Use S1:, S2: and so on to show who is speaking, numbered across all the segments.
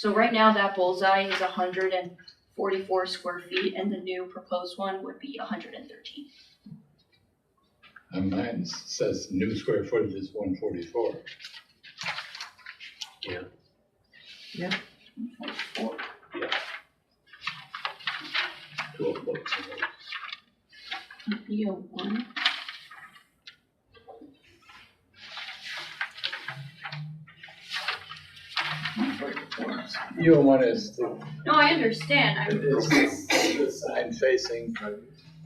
S1: So right now, that bullseye is hundred and forty-four square feet, and the new proposed one would be hundred and thirteen.
S2: And mine says new square footage is one forty-four.
S1: Be a one.
S2: You one is the,
S1: No, I understand, I'm,
S2: is the sign facing,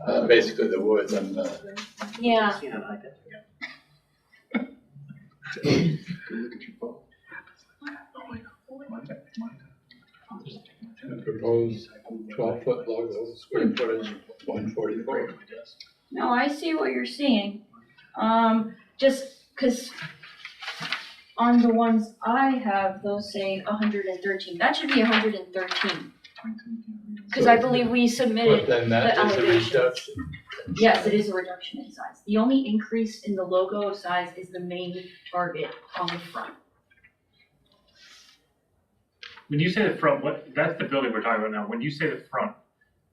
S2: uh, basically the woods and the.
S1: yeah,
S2: The proposed twelve-foot logo, square footage, one forty-four.
S1: no, I see what you're seeing. Um, just cause on the ones I have, those say hundred and thirteen, that should be hundred and thirteen. Cause I believe we
S2: But
S1: submitted,
S2: then that
S1: the
S2: is a
S1: elevations.
S2: reduction.
S1: yes, it is a reduction in size. The only increase in the logo of size is the main target on the front.
S3: When you say the front, what, that's the building we're talking about now. When you say the front,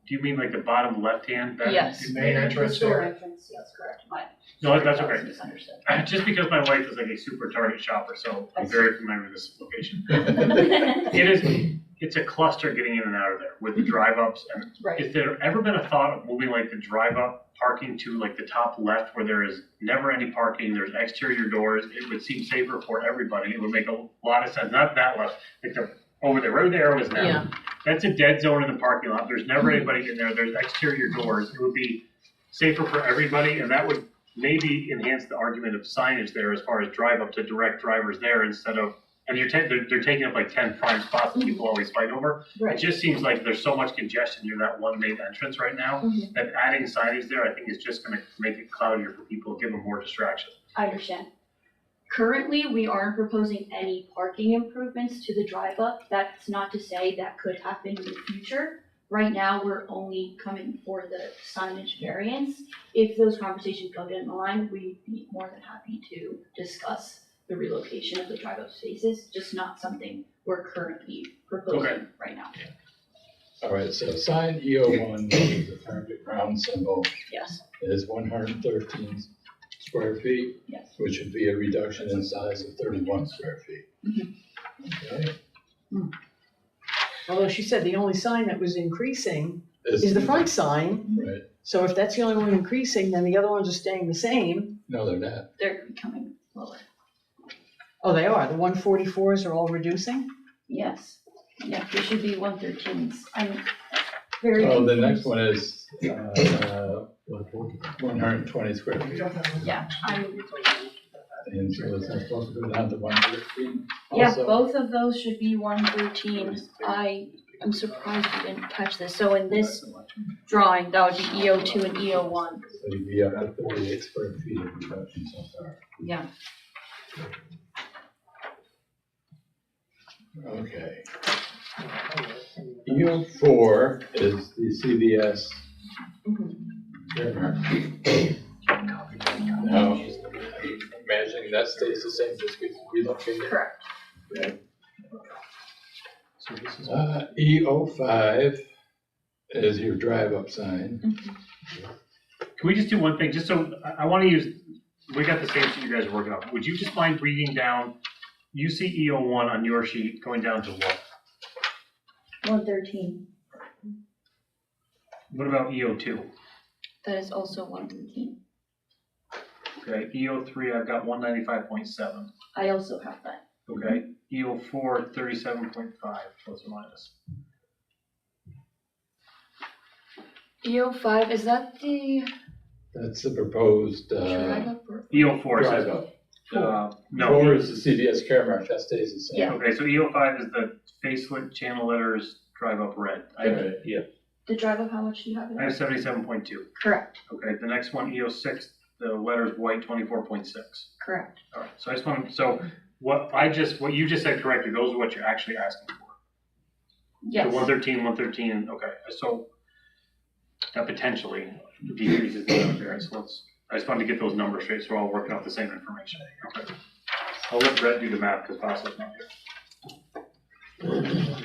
S3: do you mean like the bottom left-hand? back?
S1: Yes.
S4: The main entrance
S1: The store
S4: there,
S1: entrance, yes, correct, my.
S3: No,
S1: sorry,
S3: that's
S1: that was
S3: okay.
S1: misunderstood.
S3: Just because my wife is like a super Target shopper, so I'm very familiar with this location. It is, it's a cluster getting in and out of there with the drive-ups. And
S1: Right,
S3: Has there ever been a thought of moving like the drive-up parking to like the top left where there is never any parking, there's exterior doors? It would seem safer for everybody. It would make a lot of sense, not that left, like the, over there, where the arrow is now.
S5: Yeah,
S3: That's a dead zone in the parking lot, there's never anybody in there, there's exterior doors, it would be safer for everybody, and that would maybe enhance the argument of signage there as far as drive up to direct drivers there instead of, and you're taking, they're, they're taking up like ten prime spots that people always fight over. It
S1: right.
S3: just seems like there's so much congestion near that one main entrance right now,
S1: Mhm.
S3: that adding signage there, I think is just gonna make it cloudier for people, give them more distraction.
S1: I understand. Currently, we aren't proposing any parking improvements to the drive up. That's not to say that could happen in the future. Right now, we're only coming for the signage variance. If those conversations go down the line, we'd be more than happy to discuss the relocation of the drive up spaces, just not something we're currently proposing right now.
S2: All right, so sign EO one, the perfect ground symbol,
S1: Yes,
S2: is one hundred and thirteen square feet,
S1: yes.
S2: which would be a reduction in size of thirty-one square feet.
S1: Mm-hmm.
S2: Okay.
S5: although she said the only sign that was increasing
S2: This-
S5: is the front sign,
S2: Right,
S5: so if that's the only one increasing, then the other ones are staying the same.
S2: no, they're not,
S1: They're becoming lower.
S5: Oh, they are, the one forty-fours are all reducing?
S1: Yes, yeah, there should be one thirteens, I'm very.
S2: oh, the
S1: confused.
S2: next one is, uh, one hundred and twenty square feet.
S1: Yeah, I'm,
S2: And so is that supposed to go down to one thirteen?
S1: yeah, both of those should be one thirteen, I am surprised you didn't catch this, so in this drawing, that would be EO two and EO one,
S2: So you'd be up at thirty-eight square feet of reduction so far.
S1: yeah.
S2: Okay. U four is the CVS
S1: Mhm.
S2: trademark. Now, imagining that stays the same, just gets relocated.
S1: Correct,
S4: so this is,
S2: Uh, E O five is your drive-up sign.
S1: Mm-hmm.
S3: Can we just do one thing, just so, I, I wanna use, we got the same sheet you guys are working on, would you just mind reading down UCEO one on your sheet, going down to what?
S1: one thirteen,
S3: What about EO two?
S1: that is also one thirteen,
S3: Okay, EO three, I've got one ninety-five point seven,
S1: I also have that,
S3: okay? EO four, thirty-seven point five, plus or minus.
S1: EO E five, is that the
S2: That's the proposed,
S1: drive
S2: uh,
S1: up or?
S3: EO E four says,
S2: drive-up.
S3: uh,
S2: Four
S3: no,
S2: is the CVS Caremark, that stays the same.
S1: Yeah.
S3: okay, so EO five is the facelift channel letters, drive up red. I,
S2: Right.
S1: The drive up, how much do you have it?
S3: I have seventy-seven point two,
S1: Correct,
S3: okay, the next one, EO six, the letters white, twenty-four point six.
S1: correct,
S3: All right, so I just want, so what I just, what you just said correctly, those are what you're actually asking for.
S1: yes.
S3: The one thirteen, one thirteen, okay, so that potentially decreases the amount of variance, so let's, I just wanted to get those numbers straight, so we're all working off the same information. Okay. I'll let Brett do the math, because Vasa's not here.